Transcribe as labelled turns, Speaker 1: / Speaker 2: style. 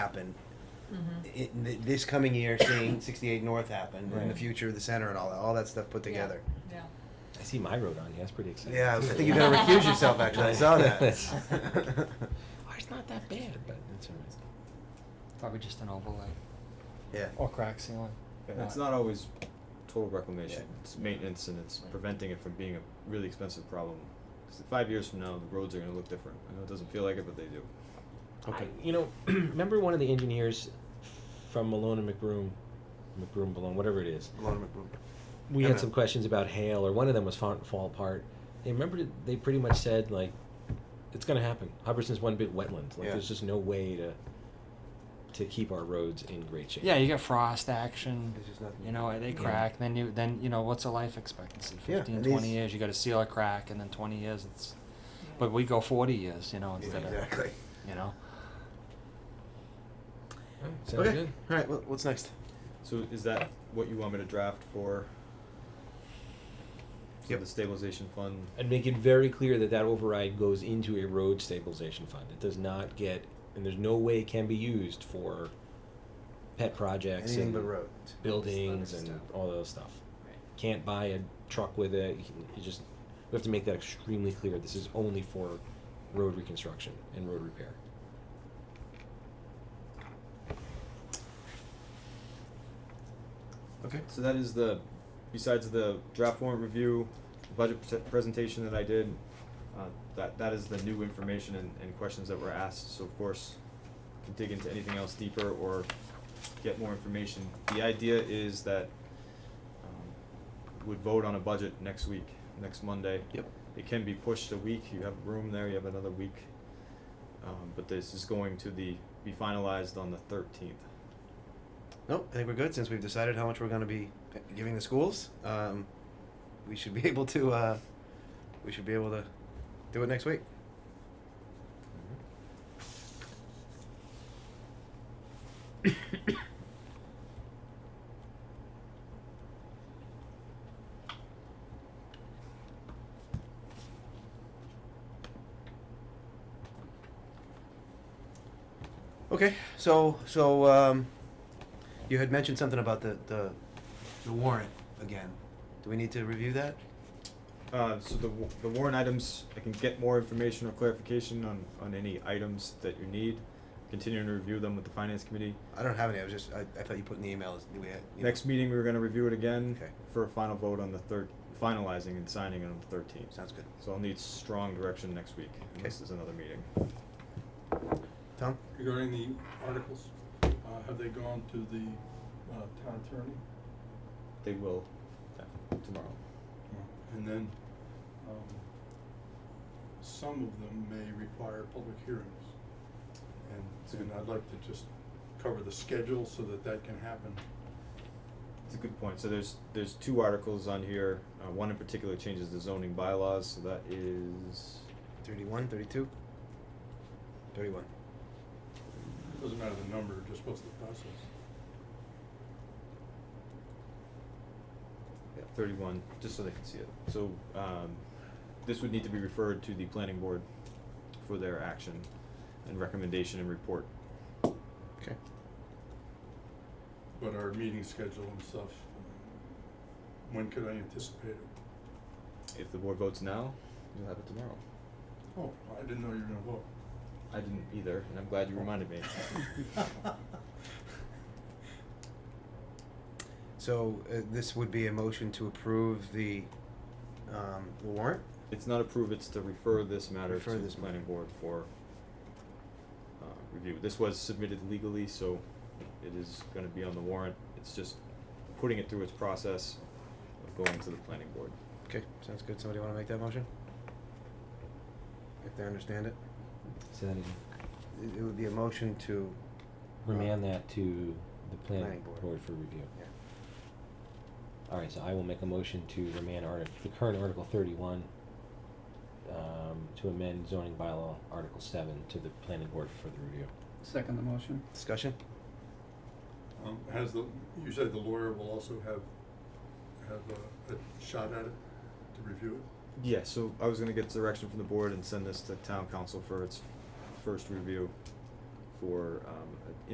Speaker 1: happen.
Speaker 2: Mm-hmm.
Speaker 1: In th- this coming year, seeing 68 North happen, and the
Speaker 3: Right.
Speaker 1: future of the center, and all that, all that stuff put
Speaker 2: Yeah.
Speaker 1: together.
Speaker 2: Yeah.
Speaker 3: I see my road on here. That's pretty exciting.
Speaker 1: Yeah, I
Speaker 3: too.
Speaker 1: think you're gonna recuse yourself. Actually, I saw that.
Speaker 3: That's- Oh, it's not that bad, but that's all right.
Speaker 4: Probably just an overlay
Speaker 1: yeah.
Speaker 4: or crack ceiling. but
Speaker 5: It's not always total reclamation,
Speaker 1: Yeah.
Speaker 5: it's maintenance and it's
Speaker 2: Right.
Speaker 5: preventing it from being a really expensive problem. 'Cause five years from now, the roads are gonna look different. I know it doesn't feel like it, but they do.
Speaker 3: Okay. you know, remember one of the engineers from Malone and McBroom, McBroom Malone, whatever it is.
Speaker 1: Malone McBroom.
Speaker 3: We
Speaker 1: ML.
Speaker 3: had some questions about hail, or one of them was fall, fall apart. They remember that they pretty much said like, it's going to happen. Hubbardston's one big wetland. Like
Speaker 1: Yeah.
Speaker 3: there's just no way to to keep our roads in great shape.
Speaker 4: Yeah, you got frost action.
Speaker 1: There's just nothing.
Speaker 4: You know, they
Speaker 3: Yeah.
Speaker 4: crack. Then you then you know what's a life expectancy?
Speaker 1: Yeah,
Speaker 4: 15,
Speaker 1: and
Speaker 4: 20
Speaker 1: these-
Speaker 4: years. You got to seal a crack, and then twenty years. It's but we go forty years. You know,
Speaker 1: Yeah,
Speaker 4: instead
Speaker 1: exactly.
Speaker 4: of you know.
Speaker 3: Alright, sounds
Speaker 1: Okay.
Speaker 3: good.
Speaker 1: All right. Well, what's next?
Speaker 5: So is that what you want me to draft for? So
Speaker 1: Yep.
Speaker 5: the stabilization fund?
Speaker 3: And make it very clear that that override goes into a road stabilization fund. It does not get, and there's no way it can be used for pet projects
Speaker 1: Anything
Speaker 3: and
Speaker 1: but roads.
Speaker 3: buildings
Speaker 2: Other
Speaker 3: and
Speaker 2: stuff.
Speaker 3: all those stuff.
Speaker 2: Right.
Speaker 3: Can't buy a truck with it. You, can- you just we have to make that extremely clear. This is only for road reconstruction and road repair.
Speaker 1: Okay.
Speaker 5: So that is the, besides the draft warrant review, budget pre- presentation that I did, uh, that, that is the new information and, and questions that were asked, so of course, can dig into anything else deeper or get more information. The idea is that, um, would vote on a budget next week, next Monday.
Speaker 1: Yep.
Speaker 5: It can be pushed a week, you have room there, you have another week, um, but this is going to the, be finalized on the thirteenth.
Speaker 1: Nope. I think we're good since we've decided how much we're going to be giving the schools. Um, we should be able to. Uh, we should be able to do it next week. Okay, so so um, you had mentioned something about the, the the warrant again. Do we need to review that?
Speaker 5: Uh, so the, wa- the warrant items, I can get more information or clarification on, on any items that you need. Continuing to review them with the finance committee.
Speaker 1: I don't have any. I was just I, I thought you put in the emails. We had, you know.
Speaker 5: Next meeting, we were gonna review it again
Speaker 1: Okay.
Speaker 5: for a final vote on the third, finalizing and signing on the thirteenth.
Speaker 1: Sounds good.
Speaker 5: So I'll need strong direction next week, unless there's another meeting.
Speaker 1: Tom.
Speaker 6: Regarding the articles, uh, have they gone to the, uh, town attorney?
Speaker 5: They will, uh, tomorrow.
Speaker 6: And then, um, some of them may require public hearings. And, and I'd like to just cover the schedule so that that can happen.
Speaker 5: It's a good point. So there's, there's two articles on here. Uh, one in particular changes the zoning bylaws, so that is,
Speaker 1: 31, 32? 31.
Speaker 6: Doesn't matter the number, just what's the process.
Speaker 5: Yeah, thirty-one, just so they can see it. So, um, this would need to be referred to the planning board for their action and recommendation and report.
Speaker 1: Okay.
Speaker 6: But our meeting schedule and stuff, um, when could I anticipate it?
Speaker 5: If the board votes now, you'll have it tomorrow.
Speaker 6: Oh, I didn't know you were gonna vote.
Speaker 5: I didn't either, and I'm glad you reminded me.
Speaker 1: So uh, this would be a motion to approve the, um, the warrant?
Speaker 5: It's not approved, it's to refer this matter to
Speaker 1: Refer
Speaker 5: the
Speaker 1: this matter.
Speaker 5: planning board for uh, review. This was submitted legally, so it is gonna be on the warrant. It's just putting it through its process of going to the planning board.
Speaker 1: Okay, sounds good. Somebody want to make that motion? If they understand it?
Speaker 3: So that is
Speaker 1: It it would be a motion to,
Speaker 3: remand that to the
Speaker 1: Planning
Speaker 3: planning
Speaker 1: board.
Speaker 3: board for review.
Speaker 1: yeah.
Speaker 3: All right, so I will make a motion to remand article, the current Article thirty-one, um, to amend zoning bylaw Article seven to the planning board for the review.
Speaker 7: Second the motion.
Speaker 1: Discussion?
Speaker 6: Um, has the, you said the lawyer will also have, have a, a shot at it to review it?
Speaker 5: Yeah, so I was gonna get direction from the board and send this to town council for its first review for, um,